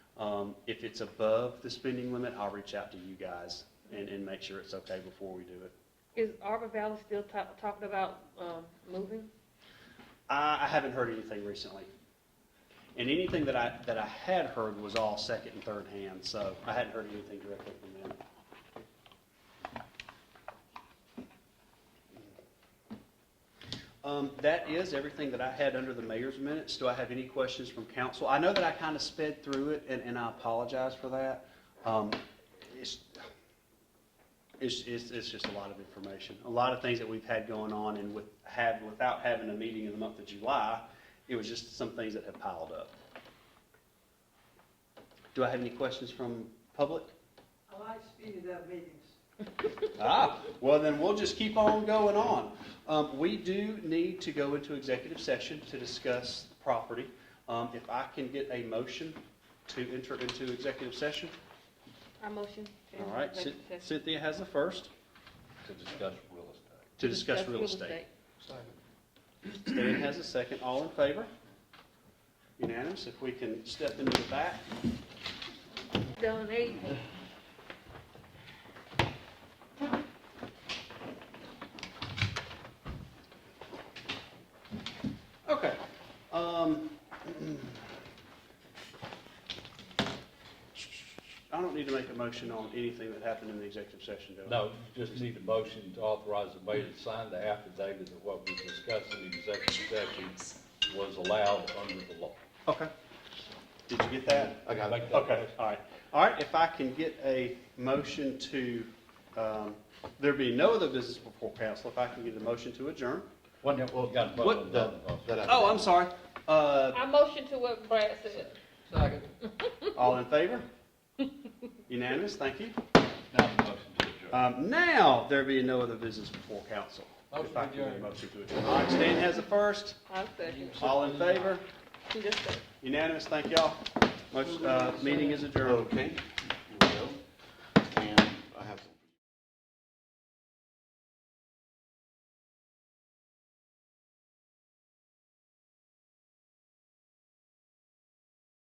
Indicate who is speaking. Speaker 1: Um, if it's above the spending limit, I'll reach out to you guys and, and make sure it's okay before we do it.
Speaker 2: Is Arbor Valley still ta- talking about, um, moving?
Speaker 1: I, I haven't heard anything recently. And anything that I, that I had heard was all second and third hand, so I hadn't heard anything directly from them. Um, that is everything that I had under the mayor's minutes. Do I have any questions from council? I know that I kind of sped through it, and, and I apologize for that. Um, it's, it's, it's, it's just a lot of information, a lot of things that we've had going on and with, had, without having a meeting in the month of July, it was just some things that have piled up. Do I have any questions from public?
Speaker 3: I like speeding up meetings.
Speaker 1: Ah, well then we'll just keep on going on. Um, we do need to go into executive session to discuss property. Um, if I can get a motion to enter into executive session,
Speaker 2: I motion. to
Speaker 1: all right,
Speaker 2: executive
Speaker 1: Cyn-
Speaker 2: session.
Speaker 1: Cynthia has the first,
Speaker 4: to discuss real estate.
Speaker 1: to discuss real estate. Stan has a second. All in favor? Unanimous. If we can step into the back.
Speaker 2: Done, eight.
Speaker 1: Okay. Um, I don't need to make a motion on anything that happened in the executive session, do I?
Speaker 4: No, you just need a motion to authorize the mayor to sign the affidavit that what we discussed in the executive session was allowed under the law.
Speaker 1: Okay. Did you get that?
Speaker 4: I got it.
Speaker 1: Okay, all right. All right, if I can get a motion to, um, there be no other business before council, if I can get a motion to adjourn.
Speaker 4: What, what, got
Speaker 1: What
Speaker 4: voted on,
Speaker 5: that I-
Speaker 1: Oh, I'm sorry. Uh,
Speaker 2: I motion to what Brad said.
Speaker 1: all in favor? Unanimous, thank you.
Speaker 4: not the motion to adjourn.
Speaker 1: Um, now, there be no other business before council. If I can get a Motion to adjourn. All right, Stan has a first.
Speaker 2: I second.
Speaker 1: All in favor?
Speaker 2: Just second.
Speaker 1: Unanimous, thank y'all. Motion, uh, meeting is adjourned.
Speaker 5: Okay.